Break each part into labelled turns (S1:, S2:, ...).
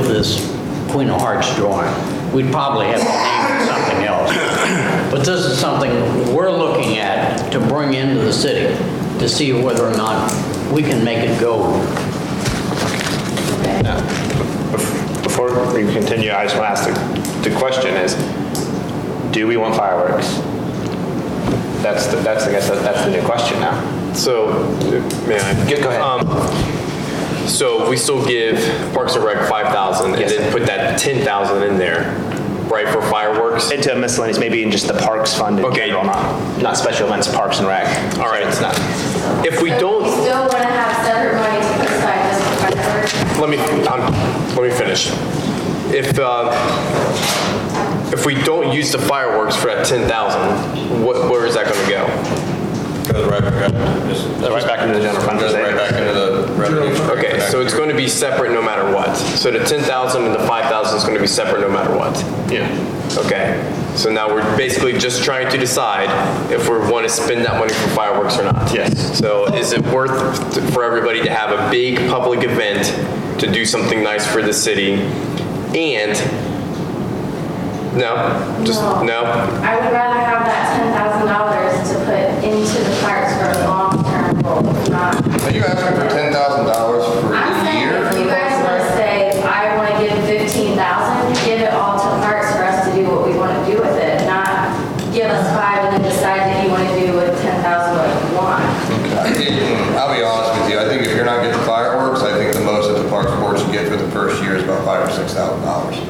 S1: this Queen of Hearts drawing. We'd probably have to name it something else. But this is something we're looking at to bring into the city to see whether or not we can make it go
S2: Before we continue, I just want to ask, the, the question is, do we want fireworks? That's, the- that's, I guess, that- that's the new question now.
S3: So, may I?
S2: Go- go ahead.
S3: Um, So we still give Parks and Rec 5,000 and
S2: Yes.
S3: then put that 10,000 in there, right, for fireworks?
S2: Into miscellaneous, maybe in just the parks fund in
S3: Okay.
S2: general, not, not special events, parks and rec.
S3: All right.
S2: It's not,
S3: If we
S4: So
S3: don't,
S4: You still want to have separate money to put aside just for fireworks?
S3: let me, um, let me finish. If, uh, if we don't use the fireworks for that 10,000, what, where is that gonna go?
S5: Goes right back, just.
S2: right back into the general fund,
S5: Goes
S2: is it?
S5: right back into the revenue. stream
S3: Okay,
S5: back
S3: so it's
S5: here.
S3: gonna be separate no matter what. So the 10,000 and the 5,000 is gonna be separate no matter what.
S2: yeah.
S3: Okay, so now we're basically just trying to decide if we want to spend that money for fireworks or not.
S2: Yes.
S3: So is it worth for everybody to have a big public event to do something nice for the city? And, no, just, no?
S4: I would rather have that ten thousand dollars to put into the parks for a long-term goal, not.
S5: Are you asking for ten thousand dollars for
S4: I'm
S5: a
S4: saying,
S5: year?
S4: if you guys want to say, I want to give fifteen thousand, give it all to parks for us to do what we want to do with it, not give us five and then decide that you want to do with ten thousand what you want.
S5: I think- hmm, I'll be honest with you, I think if you're not getting fireworks, I think the most that the parks board should get for the first year is about five or six thousand dollars.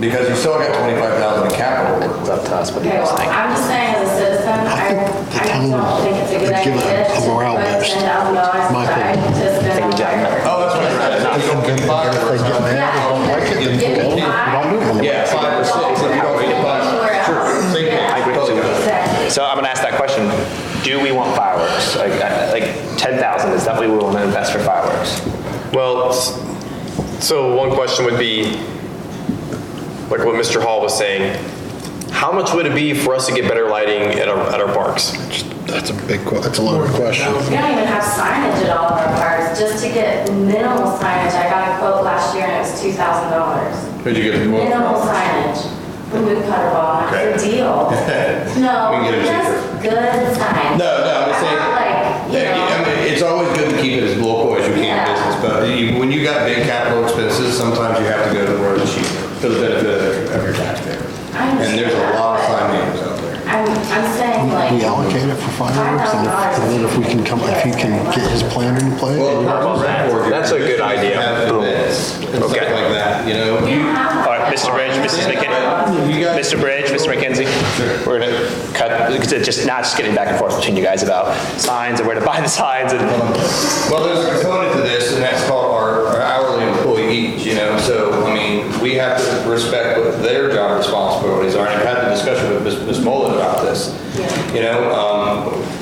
S5: Because you still got twenty-five thousand in capital.
S2: It's up to us, what do you guys
S4: Okay, well,
S2: think?
S4: I'm just saying as a citizen, I,
S6: think the
S4: I
S6: town
S4: don't think it's a good
S6: would give it
S4: idea to
S6: a morale
S4: put
S6: boost,
S4: ten thousand dollars
S6: my
S4: aside
S6: opinion.
S4: to spend on fireworks.
S5: Oh, that's what you're at, if you don't get fireworks.
S4: Yeah.
S6: Don't like it, then
S4: Give me
S6: don't-
S4: five.
S6: don't do it.
S5: Yeah, five or six, if you don't get
S4: Anywhere
S5: five.
S4: else.
S5: Sure, same here.
S2: I
S4: Yeah.
S2: agree totally with you.
S4: Exactly.
S2: So I'm gonna ask that question, do we want fireworks? Like, I- like 10,000, is that what we want to invest for fireworks?
S3: Well, s- so one question would be, like what Mr. Hall was saying, how much would it be for us to get better lighting at our, at our parks?
S6: That's a big, que- that's a loaded question.
S4: We don't even have signage at all of our parks, just to get minimal signage, I got a quote last year and it was two thousand dollars.
S5: Who'd you get the most
S4: Minimal signage, remove cutter ball, not a deal. No,
S5: We can get it
S4: just good signs.
S5: No, no, I'm just saying-
S4: Not Like, you
S5: Yeah, I
S4: know,
S5: mean, it's always good to keep it as local as you can
S4: Yeah.
S5: in business, but you- when you got big capital expenses, sometimes you have to go to the road cheap for the benefit of your taxpayer.
S4: I understand
S5: And there's a lot of sign names out there.
S4: I'm, I'm saying like.
S6: We allocate it for fireworks, and if- and then if we can come, if he can get his planner in play,
S5: Well,
S6: and
S5: the Parks and Rec Board, you're
S3: That's a good
S5: traditionally
S3: idea.
S5: have events And stuff
S3: Okay.
S5: like that, you know?
S4: We don't have.
S2: All right, Mr. Bridge, Mrs. McKenzie,
S5: You guys-
S2: Mr. Bridge, Mr. McKenzie, we're gonna cut, just, not just getting back and forth between you guys about signs and where to buy the signs and.
S5: Well, there's a component to this, and that's called our our hourly employee each, you know, so, I mean, we have to respect what their job responsibilities are, and I've had a discussion with Ms. Ms. Mullen about this. You know,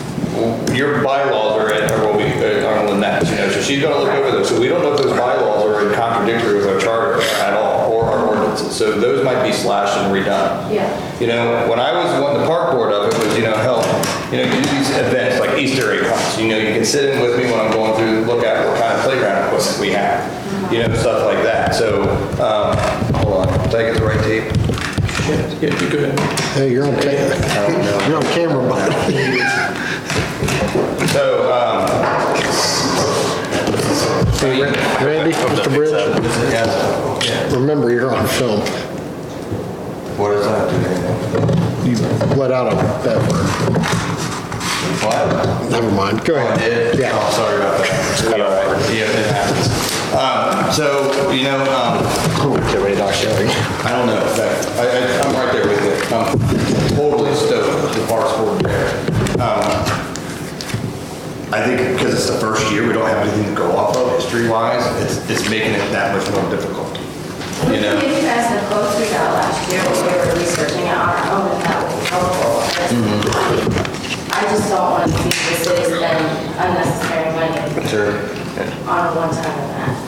S5: um, your bylaws are in, are what we, are on the next, you know, so she's gonna look over those, so we don't know if those bylaws are in contradictory with our charter at all, or our ordinances, so those might be slashed and redone.
S4: Yeah.
S5: You know, when I was on the park board of it, was, you know, help, you know, you do these events like Easter egg hunts, you know, you can sit in with me when I'm going through, look at what kind of playground equipment we have, you know, stuff like that, so, um, hold on, did I get the right tape? Yeah, you good.
S6: hey, you're on camera, you're on camera, bud.
S5: So, um,
S6: Randy, Mr. Bridge, remember, you're on film.
S5: What does that do?
S6: You let out a bad word.
S5: What?
S6: Never mind, go ahead.
S5: Yeah.
S6: Yeah.
S5: Oh, sorry about that. It's quite all right. Yeah, it happens. Um, so, you know, um, I don't know. That- I, I, I'm right there with you. I'm totally stoked with the Parks Board there. Um, I think because it's the first year, we don't have anything to go off of history-wise. It's, it's making it that much more difficult.
S4: We
S5: You
S4: can
S5: know?
S4: give you guys the quotes we got last year when we were researching it on our own, if that would be helpful.
S5: Mm-hmm.
S4: I just don't want to see the city spend unnecessary money on a one-time event.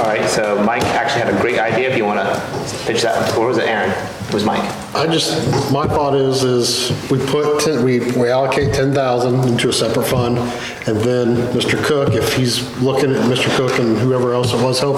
S2: All right, so Mike actually had a great idea, if you wanna pitch that, or was it Aaron? It was Mike.
S6: I just, my thought is, is we put, ten- we we allocate 10,000 into a separate fund, and then Mr. Cook, if he's looking at Mr. Cook and whoever else it was helping